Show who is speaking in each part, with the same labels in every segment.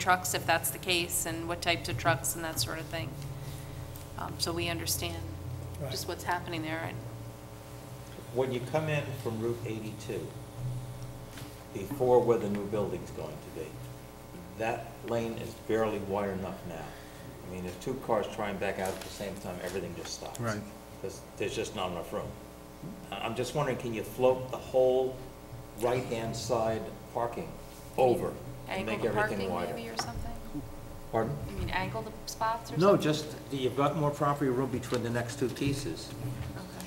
Speaker 1: trucks, if that's the case, and what types of trucks and that sort of thing. Um, So we understand just
Speaker 2: Right.
Speaker 1: what's happening there. And
Speaker 3: When you come in from Route 82, before where the new building's going to be, that lane is barely wide enough now. I mean, if two cars try and back out at the same time, everything just stops.
Speaker 4: Right.
Speaker 3: Because there's just not enough room. I- I'm just wondering, can you float the whole right-hand side parking over and make
Speaker 1: Angle the
Speaker 3: everything
Speaker 1: parking
Speaker 3: wider?
Speaker 1: maybe or something?
Speaker 3: Pardon?
Speaker 1: You mean angle the spots or something?
Speaker 3: No, just, you've got more property room between the next two pieces.
Speaker 1: Okay.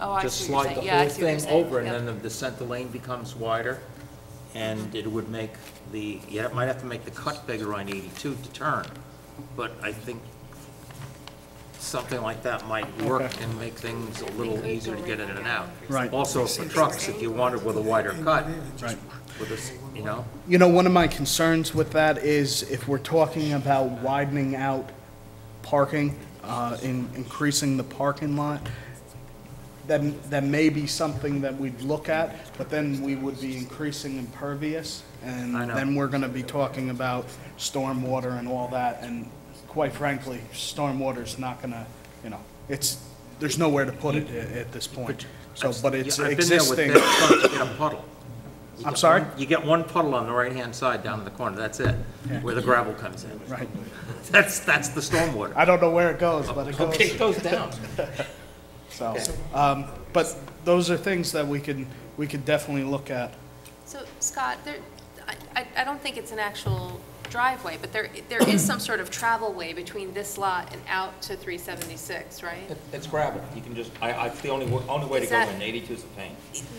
Speaker 1: Oh, I
Speaker 3: Just
Speaker 1: see what
Speaker 3: slide
Speaker 1: you're
Speaker 3: the
Speaker 1: saying. Yeah, I
Speaker 3: whole
Speaker 1: see what you're
Speaker 3: thing
Speaker 1: saying.
Speaker 3: over, and
Speaker 1: Yep.
Speaker 3: then the- the center lane becomes wider, and it would make the, you ha- might have to make the cut bigger on 82 to turn, but I think something like that might work
Speaker 4: Okay.
Speaker 3: and make things a little easier to get in and out.
Speaker 4: Right.
Speaker 3: Also, for trucks, if you wanted with a wider cut,
Speaker 4: Right.
Speaker 3: with this, you know,
Speaker 4: You know, one of my concerns with that is if we're talking about widening out parking, uh, in increasing the parking lot, then, that may be something that we'd look at, but then we would be increasing impervious, and
Speaker 3: I know.
Speaker 4: then we're gonna be talking about stormwater and all that, and quite frankly, stormwater's not gonna, you know, it's, there's nowhere to put it a- at this point. So, but it's
Speaker 3: Yeah, I've been there with
Speaker 4: existing.
Speaker 3: that truck, you get a puddle. You
Speaker 4: I'm
Speaker 3: get
Speaker 4: sorry?
Speaker 3: one- You get one puddle on the right-hand side down in the corner, that's it, where the gravel comes in.
Speaker 4: Right.
Speaker 3: That's, that's the stormwater.
Speaker 4: I don't know where it goes, but it goes.
Speaker 3: Okay, it goes down.
Speaker 4: So, um, but those are things that we can, we could definitely look at.
Speaker 1: So Scott, there, I, I- I don't think it's an actual driveway, but there, there is some sort of travel way between this lot and out to 376, right?
Speaker 3: It- It's gravel, you can just, I, I, it's the only, wa- only way to
Speaker 1: Is
Speaker 3: go
Speaker 1: that-
Speaker 3: in, 82 is a pain.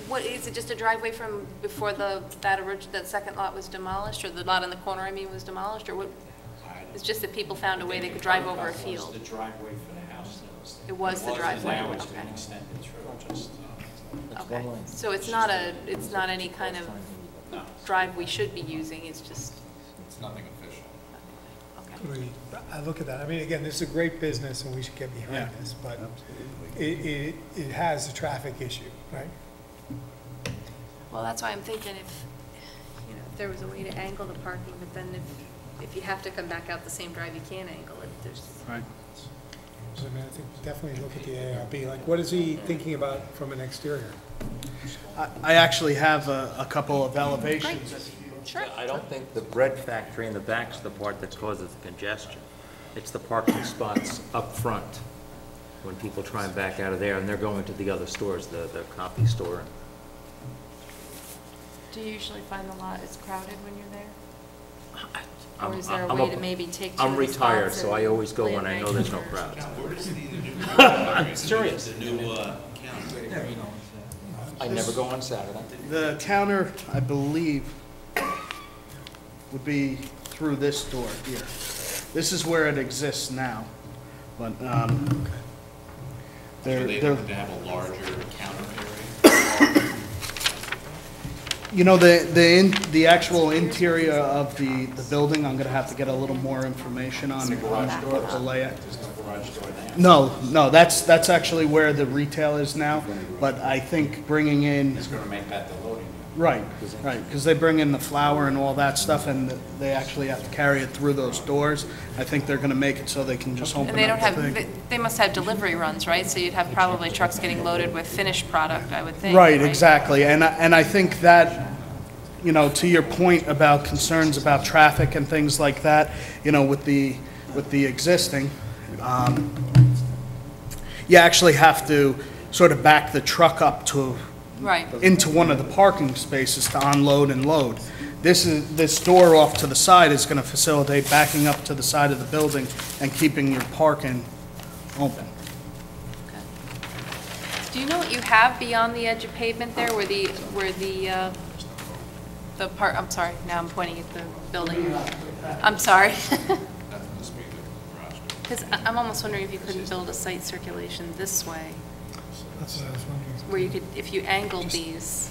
Speaker 1: What, is it just a driveway from before the, that orig, that second lot was demolished, or the lot in the corner, I mean, was demolished, or what? It's just that people found a way they could drive over a field.
Speaker 5: The driveway for the house that was there.
Speaker 1: It was the driveway,
Speaker 5: Now it's been
Speaker 1: okay.
Speaker 5: extended through, just, uh,
Speaker 1: Okay, so it's not a, it's not any kind of drive we should be using, it's just,
Speaker 5: It's nothing official.
Speaker 1: okay.
Speaker 6: We- I look at that, I mean, again, this is a great business and we should get behind
Speaker 4: Yeah.
Speaker 6: this, but it, it, it has a traffic issue, right?
Speaker 1: Well, that's why I'm thinking if, you know, if there was a way to angle the parking, but then if, if you have to come back out the same drive, you can't angle it, there's.
Speaker 4: Right.
Speaker 6: So I mean, I think definitely look at the ARB, like, what is he thinking about from an exterior?
Speaker 4: I, I actually have a, a couple of elevations.
Speaker 1: Sure.
Speaker 3: I don't think the bread factory in the back's the part that causes the congestion. It's the parking spots up front, when people try and back out of there, and they're going to the other stores, the, the copy store.
Speaker 1: Do you usually find the lot is crowded when you're there?
Speaker 3: I'm-
Speaker 1: Or is there a
Speaker 3: I'm
Speaker 1: way to maybe take two
Speaker 3: I'm
Speaker 1: of the spots
Speaker 3: retired, so
Speaker 1: and
Speaker 3: I always go when I
Speaker 1: land
Speaker 3: know there's no
Speaker 1: right here?
Speaker 3: crowds.
Speaker 7: Where does the,
Speaker 3: I'm serious.
Speaker 7: the new uh, county?
Speaker 3: I never go on Saturday.
Speaker 4: The counter, I believe, would be through this door here. This is where it exists now, but, um,
Speaker 7: So
Speaker 4: they're,
Speaker 7: they
Speaker 4: they're,
Speaker 7: have to have a larger counter area?
Speaker 4: you know, the, the, in- the actual interior of the, the building, I'm gonna have to get a little more information on, on what the layout. No, no, that's, that's actually where the retail is now, but I think bringing in,
Speaker 5: It's gonna make that the loading area.
Speaker 4: right, right, because they bring in the flour and all that stuff, and they actually have to carry it through those doors. I think they're gonna make it so they can just open
Speaker 1: And they don't
Speaker 4: up
Speaker 1: have,
Speaker 4: the
Speaker 1: they-
Speaker 4: thing.
Speaker 1: they must have delivery runs, right? So you'd have probably trucks getting loaded with finished product, I would think.
Speaker 4: Right, exactly, and, I- and I think that, you know, to your point about concerns about traffic and things like that, you know, with the, with the existing, um, you actually have to sort of back the truck up to
Speaker 1: Right,
Speaker 4: into one of the parking spaces to unload and load. This is, this door off to the side is going to facilitate backing up to the side of the building and keeping your parking open.
Speaker 1: do you know what you have beyond the edge of pavement there, where the, where the, uh, the part, I'm sorry, now I'm pointing at the building. I'm sorry.
Speaker 7: That must be the garage door.
Speaker 1: Because I'm almost wondering if you couldn't build a site circulation this way,
Speaker 6: That's what I was wondering.
Speaker 1: where you could, if you angled these,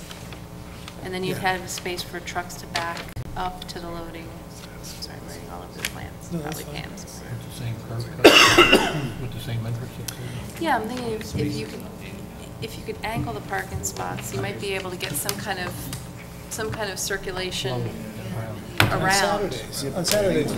Speaker 1: and then you'd have space for trucks to back up to the loading. Sorry, I'm reading all over the plans,
Speaker 6: No, that's
Speaker 1: probably
Speaker 6: fine.
Speaker 1: can.
Speaker 8: With the same curb cut, with the same entrance. exit.
Speaker 1: Yeah, I'm thinking if if you could, if you could angle the parking spots, you might be able to get some kind of, some kind of circulation
Speaker 8: Around.
Speaker 1: around.
Speaker 6: Saturdays, on Saturdays,